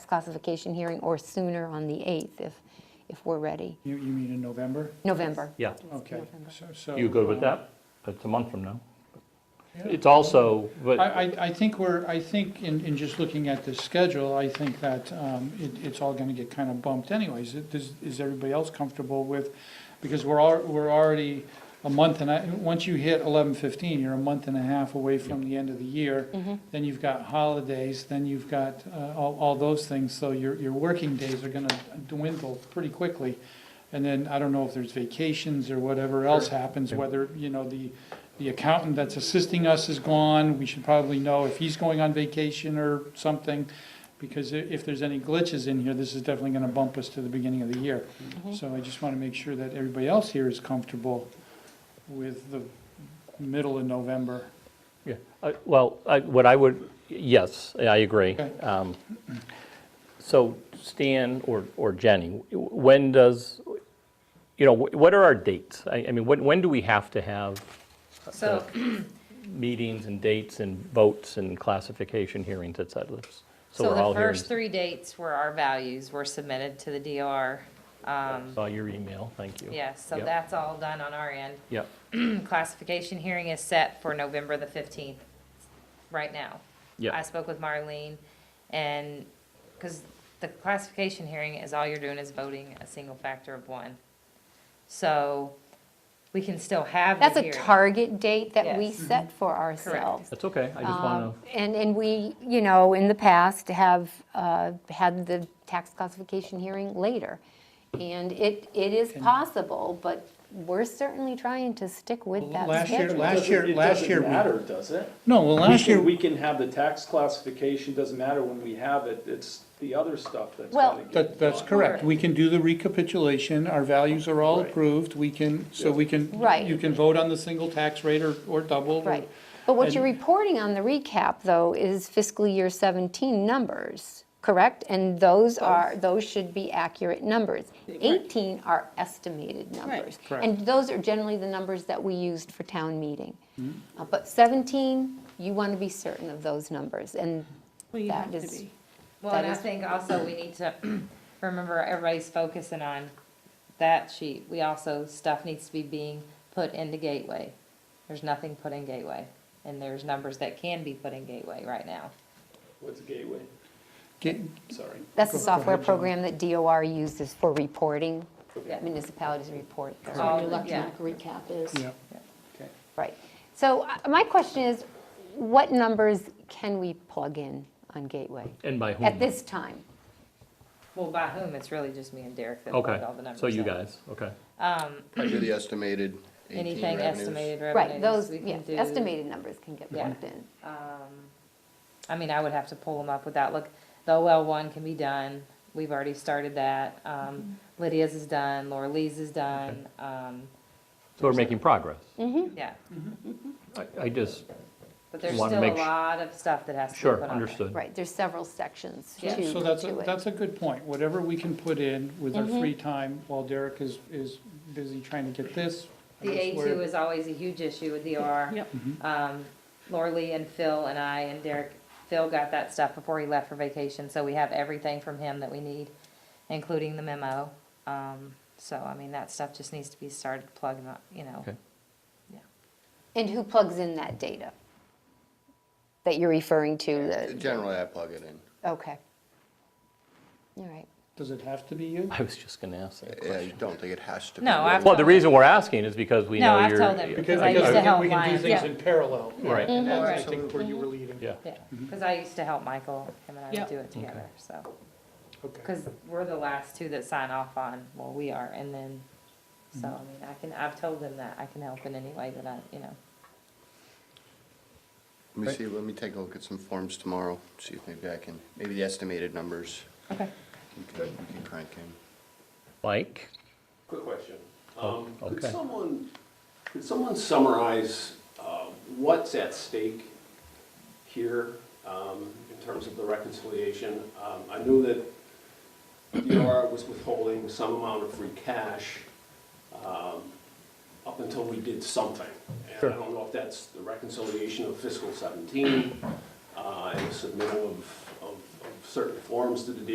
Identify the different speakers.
Speaker 1: classification hearing or sooner on the 8th if, if we're ready.
Speaker 2: You, you mean in November?
Speaker 1: November.
Speaker 3: Yeah,
Speaker 2: Okay.
Speaker 1: November.
Speaker 2: so- so,
Speaker 3: you good with
Speaker 2: um,
Speaker 3: that? It's a month from now.
Speaker 2: yeah.
Speaker 3: It's also,
Speaker 2: I,
Speaker 3: but,
Speaker 2: I, I think we're, I think in, in just looking at the schedule, I think that um, it, it's all gonna get kind of bumped anyways. It- Is, is everybody else comfortable with, because we're, al- we're already a month and I, once you hit eleven fifteen, you're a month and a half away from the end of the year. Then you've got holidays, then you've got uh, all, all those things, so your, your working days are gonna dwindle pretty quickly. And then, I don't know if there's vacations or whatever else happens, whether, you know, the, the accountant that's assisting us is gone, we should probably know if he's going on vacation or something, because i- if there's any glitches in here, this is definitely gonna bump us to the beginning of the year.
Speaker 1: Mm-hmm.
Speaker 2: So I just wanna make sure that everybody else here is comfortable with the middle of November.
Speaker 3: yeah, I- well, I- what I would, yes, I agree.
Speaker 2: Okay.
Speaker 3: Um, So Stan or or Jenny, when does, you know, wh- what are our dates? I I mean, when when do we have to have
Speaker 4: So,
Speaker 3: meetings and dates and votes and classification hearings, et cetera?
Speaker 4: so
Speaker 3: we're all
Speaker 4: the
Speaker 3: here in-
Speaker 4: first three dates were our values, were submitted to the DOR. Um,
Speaker 3: Saw your email, thank you.
Speaker 4: Yes, so
Speaker 3: Yep,
Speaker 4: that's all done on our end. Hmm,
Speaker 3: Yep,
Speaker 4: Classification hearing is set for November the 15th, right now. I
Speaker 3: yep,
Speaker 4: spoke with Marlene, and, because the classification hearing is all you're doing is voting a single factor of one. So we can still have the
Speaker 1: That's a
Speaker 4: hearing.
Speaker 1: target date that we
Speaker 4: Yes.
Speaker 1: set for ourselves.
Speaker 3: that's okay, I just want to,
Speaker 1: Um, And, and we, you know, in the past have uh, had the tax classification hearing later. And it, it is possible, but we're certainly trying to stick with that
Speaker 2: Last year-
Speaker 1: schedule.
Speaker 2: last- year-
Speaker 5: It doesn't-
Speaker 2: last year we-
Speaker 5: It doesn't matter, does it?
Speaker 2: No, well, last
Speaker 5: We
Speaker 2: year,
Speaker 5: can- We can have the tax classification, doesn't matter when we have it, it's the other stuff that's
Speaker 1: Well-
Speaker 5: gotta get done.
Speaker 2: that, that's correct, we can do the recapitulation, our values are all
Speaker 5: Right.
Speaker 2: approved, we can, so we can,
Speaker 1: Right.
Speaker 2: you can vote on the single tax rate or, or double. or-
Speaker 1: Right. But what
Speaker 2: And-
Speaker 1: you're reporting on the recap, though, is fiscal year 17 numbers, correct? And those are, those should be accurate numbers. 18 are estimated numbers.
Speaker 2: Correct.
Speaker 1: And those are generally the numbers that we used for town meeting. Uh, But 17, you want to be certain of those numbers, and
Speaker 6: Well, you
Speaker 1: That
Speaker 6: have to
Speaker 1: is-
Speaker 6: be.
Speaker 4: Well, and
Speaker 1: That
Speaker 4: I
Speaker 1: is-
Speaker 4: think also we need to remember everybody's focusing on that sheet. We also, stuff needs to be being put into Gateway. There's nothing put in Gateway, and there's numbers that can be put in Gateway right now.
Speaker 5: What's Gateway?
Speaker 2: Get-
Speaker 5: Sorry.
Speaker 1: that's the
Speaker 2: Go- go
Speaker 1: software
Speaker 2: ahead, John.
Speaker 1: program that DOR uses for reporting,
Speaker 4: Yeah.
Speaker 1: municipalities report. their-
Speaker 4: Correct.
Speaker 6: Your
Speaker 4: Oh, yeah.
Speaker 6: electronic recap is.
Speaker 2: Yeah.
Speaker 5: Okay.
Speaker 1: Right. So uh, my question is, what numbers can we plug in on Gateway
Speaker 3: and by whom?
Speaker 2: Hmm.
Speaker 1: at this time?
Speaker 4: Well, by whom? It's really just me and Derek that
Speaker 3: Okay,
Speaker 4: put all the numbers
Speaker 3: so you
Speaker 4: in.
Speaker 3: guys, okay.
Speaker 7: I do the estimated 18
Speaker 4: Anything
Speaker 7: revenues.
Speaker 4: estimated
Speaker 1: Right,
Speaker 4: revenues,
Speaker 1: those,
Speaker 4: we
Speaker 1: yeah,
Speaker 4: can do.
Speaker 1: estimated numbers can get
Speaker 4: Yeah.
Speaker 1: plugged in.
Speaker 4: I mean, I would have to pull them up without, look, the OL one can be done, we've already started that. Um,
Speaker 1: Mm-hmm.
Speaker 4: Lydia's is done, Laura Lee's is done, um,
Speaker 3: So we're making progress.
Speaker 4: yeah.
Speaker 3: I- I just,
Speaker 4: But there's
Speaker 3: Wanna
Speaker 4: still a
Speaker 3: make su-
Speaker 4: lot of stuff that has to be put on
Speaker 3: sure,
Speaker 4: there.
Speaker 3: understood.
Speaker 1: Right, there's several sections to,
Speaker 4: Yeah.
Speaker 1: to it.
Speaker 2: So that's, a- that's a good point. Whatever we can put in with our
Speaker 4: Mm-hmm.
Speaker 2: free time while Derek is, is busy trying to get this. I
Speaker 4: The
Speaker 2: guess
Speaker 4: A
Speaker 2: we're-
Speaker 4: two is always a huge issue with DOR.
Speaker 6: Yep.
Speaker 3: Mm-hmm.
Speaker 4: Um, Lori Lee and Phil and I and Derek, Phil got that stuff before he left for vacation, so we have everything from him that we need, including the memo. Um, so, I mean, that stuff just needs to be started plugging up, you know.
Speaker 3: Okay.
Speaker 1: And who plugs in that data? That you're referring to, the,
Speaker 7: Generally, I plug it in.
Speaker 1: okay. All right.
Speaker 2: Does it have to be you?
Speaker 3: I was just going to ask that
Speaker 7: Yeah, you
Speaker 3: question.
Speaker 7: don't think it has to be.
Speaker 4: No, I've-
Speaker 3: Well, the reason we're asking is because we
Speaker 4: No,
Speaker 3: know
Speaker 4: I've
Speaker 3: you're.
Speaker 4: told them, because I used to
Speaker 2: think
Speaker 4: help
Speaker 2: We can do
Speaker 4: Lion.
Speaker 2: things
Speaker 6: Yeah.
Speaker 2: in parallel.
Speaker 3: Right.
Speaker 2: And that's, I
Speaker 4: Mhm.
Speaker 2: think, where you were leading.
Speaker 3: Yeah,
Speaker 4: Yeah, because I used to help Michael, him and I
Speaker 6: Yeah.
Speaker 4: would do it together, so.
Speaker 2: Okay.
Speaker 4: Because we're the last two that sign off on, well, we are, and then,
Speaker 3: Mm-hmm.
Speaker 4: so, I mean, I can, I've told them that, I can help in any way that I, you know.
Speaker 7: Let me see, let me take a look at some forms tomorrow, see if maybe I can, maybe the estimated numbers
Speaker 4: Okay.
Speaker 7: we can we can crank in.
Speaker 3: Mike?
Speaker 8: Quick question. Um, Could
Speaker 3: okay.
Speaker 8: someone, could someone summarize uh, what's at stake here um, in terms of the reconciliation? Um, I knew that DOR was withholding some amount of free cash um, up until we did something. And I don't know if that's the reconciliation of fiscal 17, uh, and the submittal of, of of certain forms to the